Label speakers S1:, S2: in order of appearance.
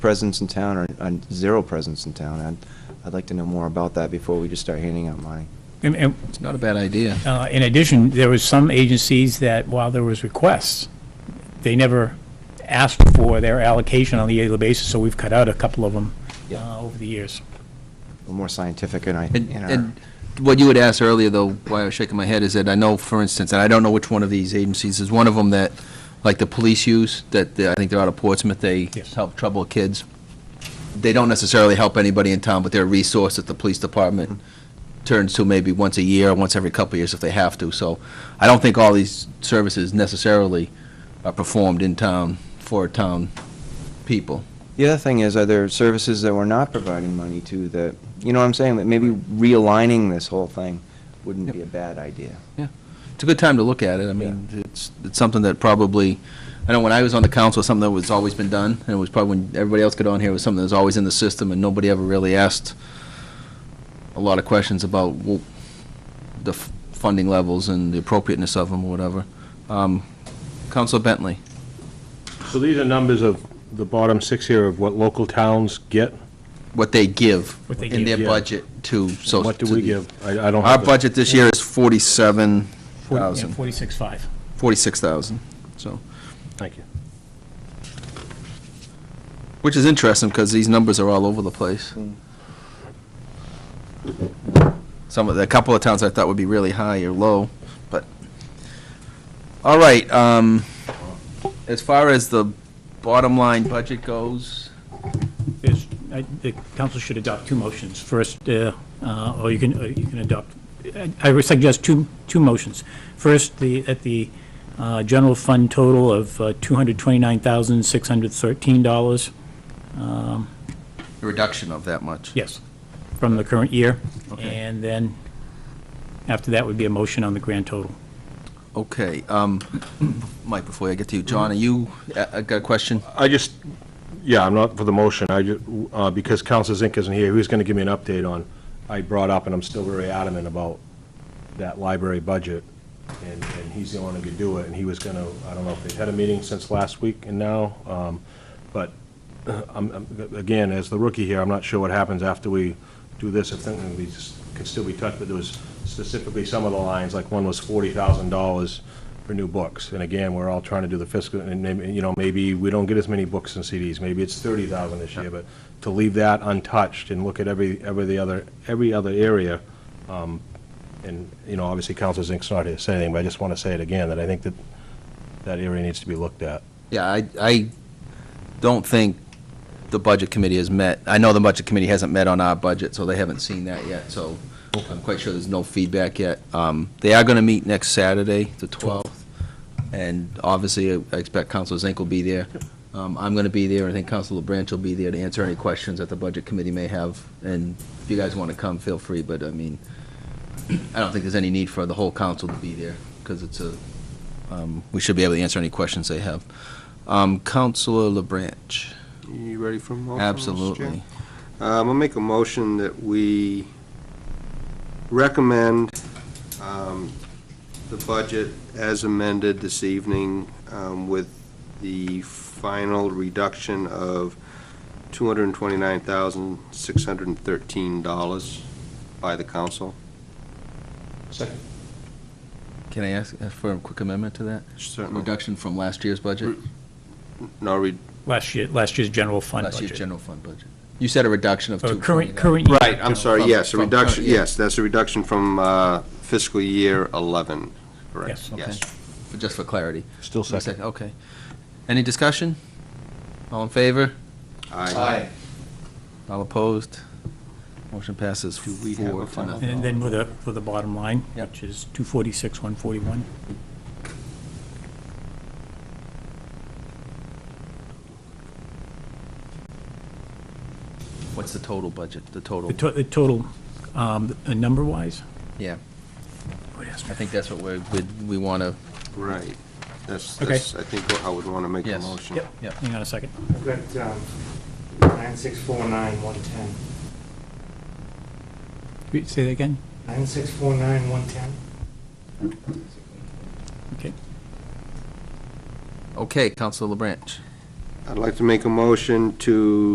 S1: presence in town or uh, zero presence in town. I'd, I'd like to know more about that before we just start handing out money.
S2: And- and,
S3: It's not a bad idea.
S2: uh, In addition, there was some agencies that, while there was requests, they never asked for their allocation on a yearly basis, so we've cut out a couple of them uh,
S1: Yeah.
S2: over the years.
S1: We're more scientific in our,
S3: And,
S1: in our,
S3: and what you had asked earlier, though, why I was shaking my head, is that I know, for instance, and I don't know which one of these agencies, is one of them that, like the police use, that they- I think they're out of Portsmouth, they
S2: Yes.
S3: help troubled kids. They don't necessarily help anybody in town, but they're a resource that the police department turns to maybe once a year, or once every couple of years if they have to. So I don't think all these services necessarily are performed in town for town people.
S1: the other thing is, are there services that we're not providing money to that, you know what I'm saying? That maybe realigning this whole thing wouldn't
S3: Yep.
S1: be a bad idea.
S3: it's a good time to look at it. I mean, it's, it's something that probably, I know when I was on the council, it's something that was always been done, and it was probably when everybody else got on here, it was something that was always in the system, and nobody ever really asked a lot of questions about well, the f- funding levels and the appropriateness of them or whatever. Um, Councilor Bentley,
S4: So these are numbers of the bottom six here of what local towns get?
S3: what they give
S2: What they
S3: in their
S4: give.
S3: budget to, so.
S4: What do
S3: to
S4: we
S3: the- Uh,
S4: give? I, I don't
S3: Our
S4: have the
S3: budget this year is forty-seven thousand,
S2: Forty-six-five.
S3: forty-six thousand, so.
S4: Thank you.
S3: Which is interesting, because these numbers are all over the place. Some of, the- a couple of towns I thought would be really high or low, but, all right, um, as far as the bottom line budget goes,
S2: There's, I- the council should adopt two motions. First, uh, uh, or you can, uh, you can adopt, I- I would suggest two, two motions. First, the, at the uh, general fund total of uh, $229,613,
S3: a reduction of that much.
S2: yes, from the current year.
S3: Okay.
S2: And then, after that would be a motion on the grand total.
S3: Okay, um, Mike, before I get to you, John, are you, I I got a question?
S4: I just, yeah, I'm not for the motion, I just, uh, because Council Zink isn't here, who's gonna give me an update on, I brought up, and I'm still very adamant about that library budget, and, and he's the only one who could do it, and he was gonna, I don't know if they've had a meeting since last week and now, um, but, uh, I'm, I'm- again, as the rookie here, I'm not sure what happens after we do this, if something we just could still be touched, but there was specifically some of the lines, like one was forty thousand dollars for new books, and again, we're all trying to do the fiscal, and, maybe, you know, maybe we don't get as many books and CDs, maybe it's thirty thousand this year, but to leave that untouched and look at every, every the other, every other area, um, and, you know, obviously Counselor Zink's not here to say anything, but I just want to say it again, that I think that that area needs to be looked at.
S3: Yeah, I, I don't think the Budget Committee has met. I know the Budget Committee hasn't met on our budget, so they haven't seen that yet, so I'm quite sure there's no feedback yet. Um, They are going to meet next Saturday, the 12th, and obviously, I expect Counselor Zink will be there. Um, I'm going to be there, and I think Counselor LeBranch will be there to answer any questions that the Budget Committee may have, and if you guys want to come, feel free, but I mean, I don't think there's any need for the whole council to be there, because it's a, um, we should be able to answer any questions they have. Um, Counselor LeBranch,
S5: You ready for a motion? Mr. Chair?
S3: absolutely.
S5: Um, I'll make a motion that we recommend um, the budget as amended this evening um, with the final reduction of $229,613 by the council.
S3: Can I ask uh, for a quick amendment to that?
S5: Certainly.
S3: Reduction from last year's budget?
S5: No, re-
S2: Last year, last year's general fund
S3: Last year's
S2: budget.
S3: general fund budget. You said a reduction of
S2: Uh,
S3: two.
S2: Current, current. year
S5: right, I'm
S2: general-
S5: sorry,
S3: From-
S5: yes, a
S3: from
S5: reduction,
S3: current year.
S5: yes, that's a reduction from uh, fiscal year
S2: Yes,
S5: 11, correct?
S2: okay.
S3: Just for clarity.
S4: Still
S3: One
S4: second.
S3: Okay. Any discussion? All in favor?
S5: Aye.
S3: All opposed? Motion passes four
S5: Do we have a
S3: to
S5: final
S3: nothing.
S2: And then with the, with the bottom line,
S3: Yep.
S2: which is 246, 141.
S3: What's the total budget, the total?
S2: The to- the total, um, uh, number-wise?
S3: Yeah,
S2: Oh, yes.
S3: I think that's what we're, we- we want to,
S5: Right. That's,
S2: Okay.
S5: that's, I think, how I would want to make a
S3: Yes.
S5: motion.
S2: Yep,
S3: Yep.
S2: hang on a second.
S6: I've got um, 9649110.
S2: Wait, Say that again?
S6: 9649110.
S2: Okay.
S3: okay, Counselor LeBranch.
S5: I'd like to make a motion to